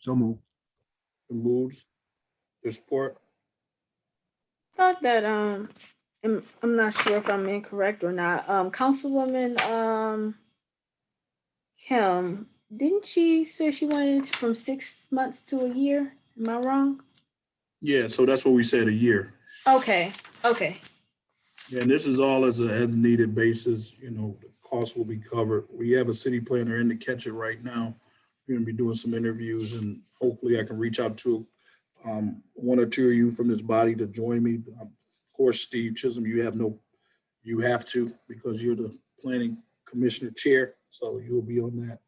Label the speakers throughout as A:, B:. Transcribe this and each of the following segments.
A: So moved.
B: Moved. There's support.
C: Thought that, um, I'm, I'm not sure if I'm incorrect or not, um, Councilwoman, um, Kim, didn't she say she wanted it from six months to a year? Am I wrong?
B: Yeah, so that's what we said, a year.
C: Okay, okay,
B: And this is all as a as needed basis, you know, the cost will be covered. We have a city planner in to catch it right now. We're gonna be doing some interviews and hopefully I can reach out to um, one or two of you from this body to join me. Um, Of course, Steve Chisholm, you have no, you have to because you're the planning commissioner chair, so you'll be on that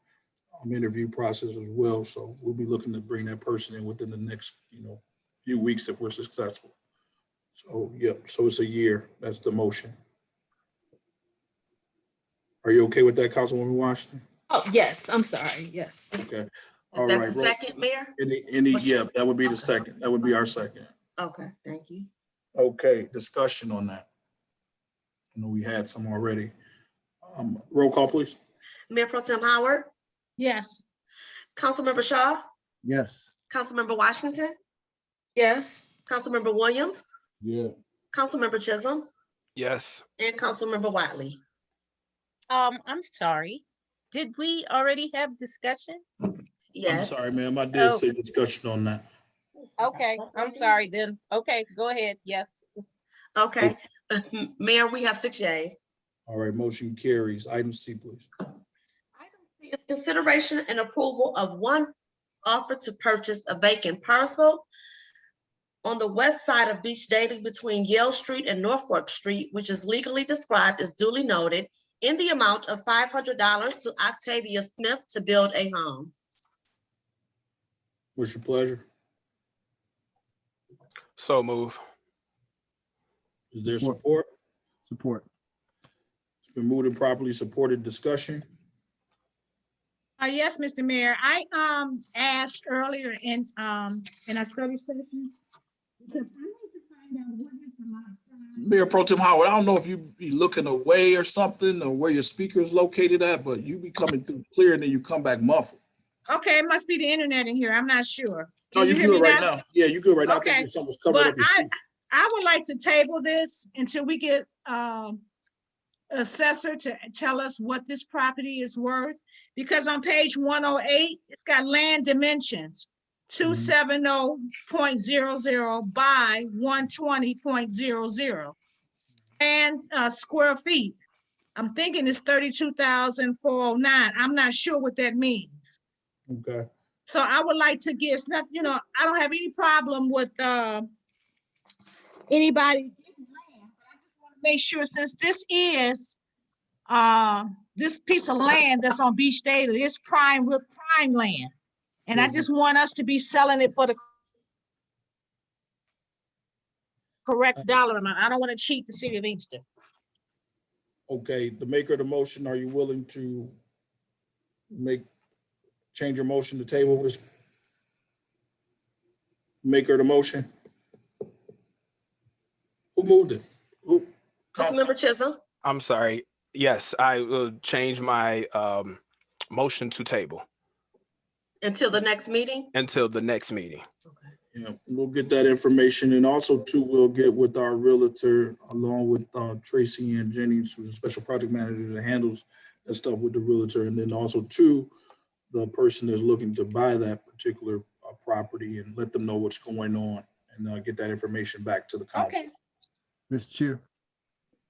B: um, interview process as well. So we'll be looking to bring that person in within the next, you know, few weeks if we're successful. So, yep, so it's a year. That's the motion. Are you okay with that, Councilwoman Washington?
C: oh, yes, I'm sorry, yes.
B: Okay. All
D: Is that
B: right.
D: the
B: roll-
D: second, Mayor?
B: Any, any,
D: What's-
B: yeah, that would be the second. That would be our second.
D: Okay, thank you.
B: Okay, discussion on that. I know we had some already. Um, roll call, please.
D: Mayor Pro Tem Howard,
E: Yes.
D: Councilmember Shaw,
A: Yes.
D: Councilmember Washington,
C: Yes,
D: Councilmember Williams,
B: Yeah.
D: Councilmember Chisholm,
F: Yes,
D: and Councilmember Wiley.
E: Um, I'm sorry. Did we already have discussion?
B: I'm
D: Yes.
B: sorry, ma'am. I did
E: Oh.
B: say discussion on that.
E: Okay, I'm sorry then. Okay, go ahead. Yes.
D: Okay, Mayor, we have six yays.
B: All right, motion carries. Item C, please.
D: Item C is Consideration and approval of one offer to purchase a vacant parcel on the west side of Beach Daily between Yale Street and Norfolk Street, which is legally described as duly noted in the amount of five hundred dollars to Octavia Smith to build a home.
B: What's your pleasure?
F: so move.
B: Is there
A: Support.
B: support?
A: Support.
B: It's been moved and properly supported discussion.
G: Uh, yes, Mr. Mayor, I, um, asked earlier in, um, in our study session. Because I need to find out what is the lot size.
B: Mayor Pro Tim Howard, I don't know if you be looking away or something, or where your speaker is located at, but you be coming through clear, and then you come back muffled.
G: Okay, it must be the internet in here, I'm not sure.
B: No,
G: Can
B: you
G: you hear me
B: good right now. Yeah, you good right now. I think
G: Okay,
B: Something was covered
G: But
B: up. your
G: I,
B: speaker.
G: I would like to table this until we get, um, assessor to tell us what this property is worth, because on page one oh eight, it's got land dimensions. Two seven oh point zero zero by one twenty point zero zero. And, uh, square feet, I'm thinking it's thirty-two thousand four oh nine, I'm not sure what that means.
B: Okay,
G: So I would like to get, it's not, you know, I don't have any problem with, uh, anybody. getting land, but I just wanna Make sure since this is, uh, this piece of land that's on Beach Daily, it's prime, we're prime land. And I
B: Mhm.
G: just want us to be selling it for the correct dollar amount. I don't want to cheat the city of Easton.
B: okay. The maker of the motion, are you willing to make, change your motion to table this? Maker of the motion? Who moved it? Who?
D: Councilmember Chisholm,
F: I'm sorry. Yes, I will change my um motion to table
D: until the next meeting.
F: until the next meeting.
B: Yeah, we'll get that information and also too, we'll get with our realtor along with uh, Tracy and Jennings, who's a special project manager that handles that stuff with the realtor. And then also too, the person that's looking to buy that particular uh, property and let them know what's going on and uh, get that information back to the council.
A: Mr. Chair.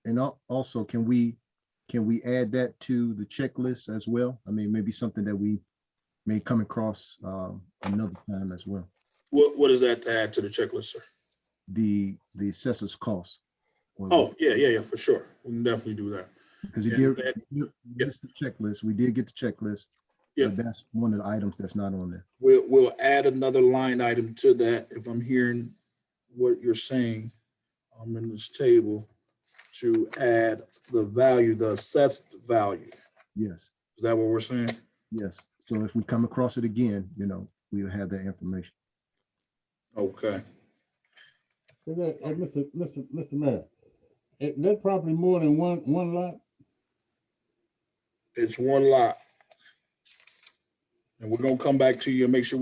A: And al- also, can we, can we add that to the checklist as well? I mean, maybe something that we may come across um, another time as well.
B: What, what is that to add to the checklist, sir?
A: The, the assessor's cost.
B: Oh, yeah, yeah, yeah, for sure. We can definitely do that.
A: Because you
B: yeah,
A: did,
B: that-
A: you-
B: yeah.
A: just the checklist, we did get the checklist.
B: Yeah.
A: But that's one of the items that's not on there.
B: We'll, we'll add another line item to that if I'm hearing what you're saying um, in this table to add the value, the assessed value.
A: Yes,
B: Is that what we're saying?
A: yes. So if we come across it again, you know, we'll have that information.
B: Okay.
H: Is that, uh, Mr. Mr. Mr. Mayor, is that property more than one, one lot?
B: It's one lot. And we're gonna come back to you and make sure